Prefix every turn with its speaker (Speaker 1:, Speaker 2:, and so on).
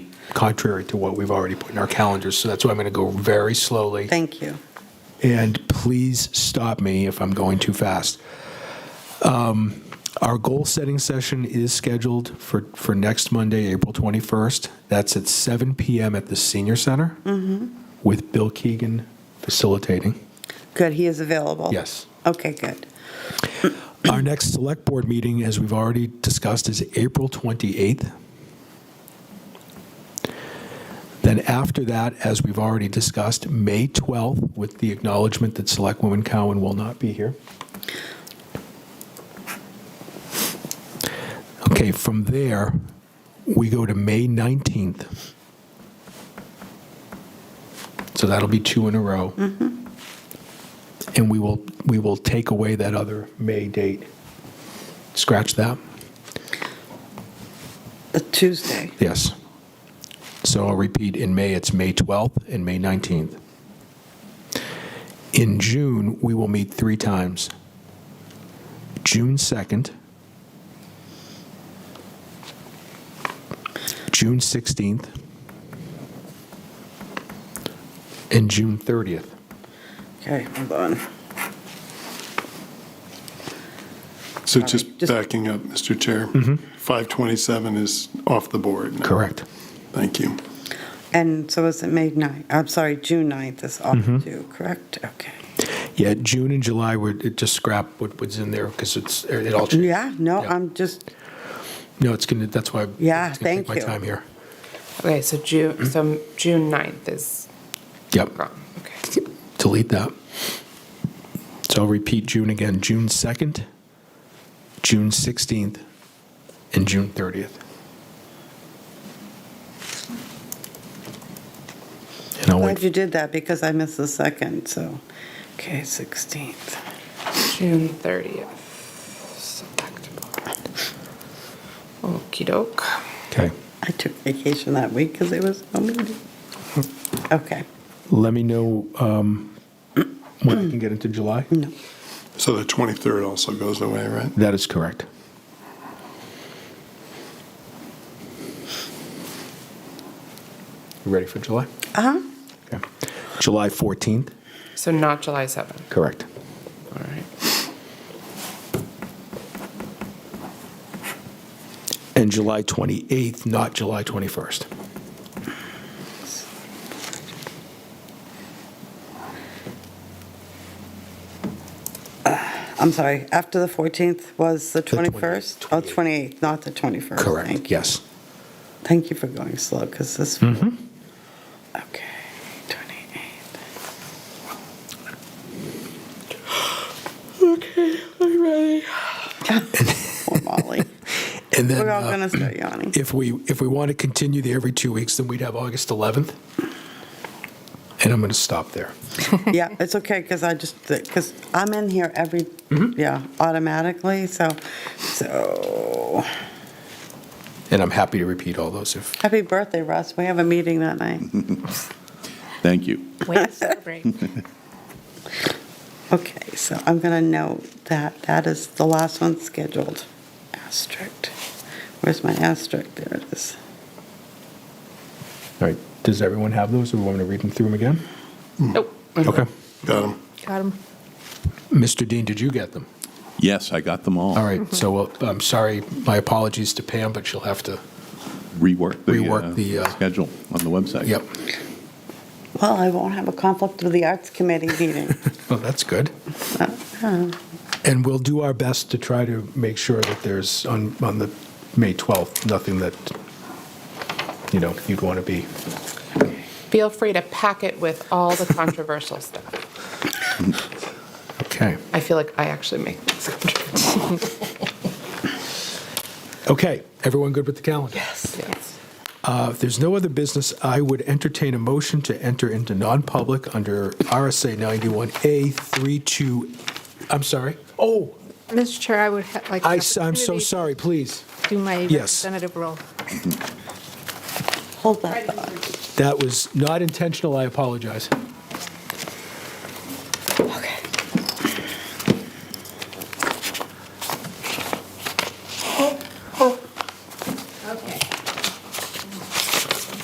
Speaker 1: contrary to what we've already put in our calendars. So that's why I'm going to go very slowly.
Speaker 2: Thank you.
Speaker 1: and please stop me if I'm going too fast. Um, Our goal-setting session is scheduled for, for next Monday, April 21st. That's at 7 PM at the Senior Center with Bill Keegan facilitating.
Speaker 2: Good, he is available?
Speaker 1: Yes.
Speaker 2: Okay, good.
Speaker 1: Our next Select Board meeting, as we've already discussed, is April 28th. Then after that, as we've already discussed, May 12th, with the acknowledgement that Selectwoman Cowan will not be here. Okay, from there, we go to May 19th. So that'll be two in a row. And we will, we will take away that other May date. Scratch that.
Speaker 2: A Tuesday.
Speaker 1: Yes. So I'll repeat, in May, it's May 12th and May 19th. In June, we will meet three times. June 2nd, June 16th, and June 30th.
Speaker 2: Okay, hold on.
Speaker 3: So
Speaker 2: Sorry,
Speaker 3: just
Speaker 2: just-
Speaker 3: backing up, Mr. Chair, 527 is off the board. now.
Speaker 1: Correct.
Speaker 3: Thank you.
Speaker 2: And so is it May 9th? I'm sorry, June 9th is off
Speaker 1: Mm-hmm.
Speaker 2: due, correct? Okay.
Speaker 1: Yeah, June and July, we're it just scrap what was in there because it's, it all changed.
Speaker 2: Yeah, no,
Speaker 1: Yeah.
Speaker 2: I'm just,
Speaker 1: No, it's going to, that's why.
Speaker 2: Yeah,
Speaker 1: it's gonna take
Speaker 2: thank
Speaker 1: My
Speaker 2: you.
Speaker 1: time here.
Speaker 4: Okay, so June, so June 9th is
Speaker 1: Yep.
Speaker 4: gone. Okay.
Speaker 1: delete that. So I'll repeat June again, June 2nd, June 16th, and June 30th. And I'll
Speaker 2: glad
Speaker 1: wait,
Speaker 2: you did that because I missed the second, so, okay, 16th.
Speaker 4: June 30th. Select board. Okey doke.
Speaker 1: okay.
Speaker 2: I took vacation that week because there was no meeting. Okay,
Speaker 1: Let me know um, when I can get into July.
Speaker 3: So the 23rd also goes away, right?
Speaker 1: That is correct. You ready for July?
Speaker 2: uh-huh,
Speaker 1: Okay. July 14th,
Speaker 4: So not July 7th.
Speaker 1: correct.
Speaker 4: All right.
Speaker 1: and July 28th, not July 21st.
Speaker 2: I'm sorry, after the 14th was the
Speaker 1: The 28th,
Speaker 2: 21st? Oh, 28th, not the 21st. Thank you.
Speaker 1: Yes.
Speaker 2: Thank you for going slow, because this. Okay, 28. Okay, I'm ready. Poor Molly.
Speaker 1: And then,
Speaker 2: We're all
Speaker 1: uh,
Speaker 2: going to start yawning.
Speaker 1: if we, if we want to continue the every two weeks, then we'd have August 11th. And I'm going to stop there.
Speaker 2: Yeah, it's okay, because I just, because I'm in here every, yeah, automatically, so, so,
Speaker 1: And I'm happy to repeat all those if,
Speaker 2: happy birthday, Russ. We have a meeting that night.
Speaker 5: Thank you.
Speaker 6: Way to celebrate.
Speaker 2: Okay, so I'm going to note that that is the last one scheduled. Asterisk. Where's my asterisk? There it is.
Speaker 1: all right, does everyone have those? Do we want to read them through them again?
Speaker 4: Nope.
Speaker 1: Okay.
Speaker 3: Got him.
Speaker 6: Got him.
Speaker 1: Mr. Dean, did you get them?
Speaker 5: Yes, I got them all.
Speaker 1: All right, so well, I'm sorry, my apologies to Pam, but she'll have to,
Speaker 5: Rework the,
Speaker 1: Rework
Speaker 5: uh,
Speaker 1: the, uh,
Speaker 5: schedule on the website.
Speaker 1: yep.
Speaker 2: Well, I won't have a conflict with the Arts Committee meeting.
Speaker 1: Well, that's good. Uh-huh. And we'll do our best to try to make sure that there's, on, on the May 12th, nothing that, you know, you'd want to be.
Speaker 4: Feel free to pack it with all the controversial stuff.
Speaker 1: Okay.
Speaker 4: I feel like I actually make things controversial.
Speaker 1: Okay, everyone good with the calendar?
Speaker 4: Yes.
Speaker 1: Uh, If there's no other business, I would entertain a motion to enter into non-public under RSA 91A 32, I'm sorry? Oh,
Speaker 6: Mr. Chair, I would ha- like.
Speaker 1: I,
Speaker 6: an
Speaker 1: am so
Speaker 6: opportunity to
Speaker 1: sorry, please.
Speaker 6: Do my
Speaker 1: Yes.
Speaker 6: representative role.
Speaker 2: Hold that thought.
Speaker 1: That was not intentional, I apologize.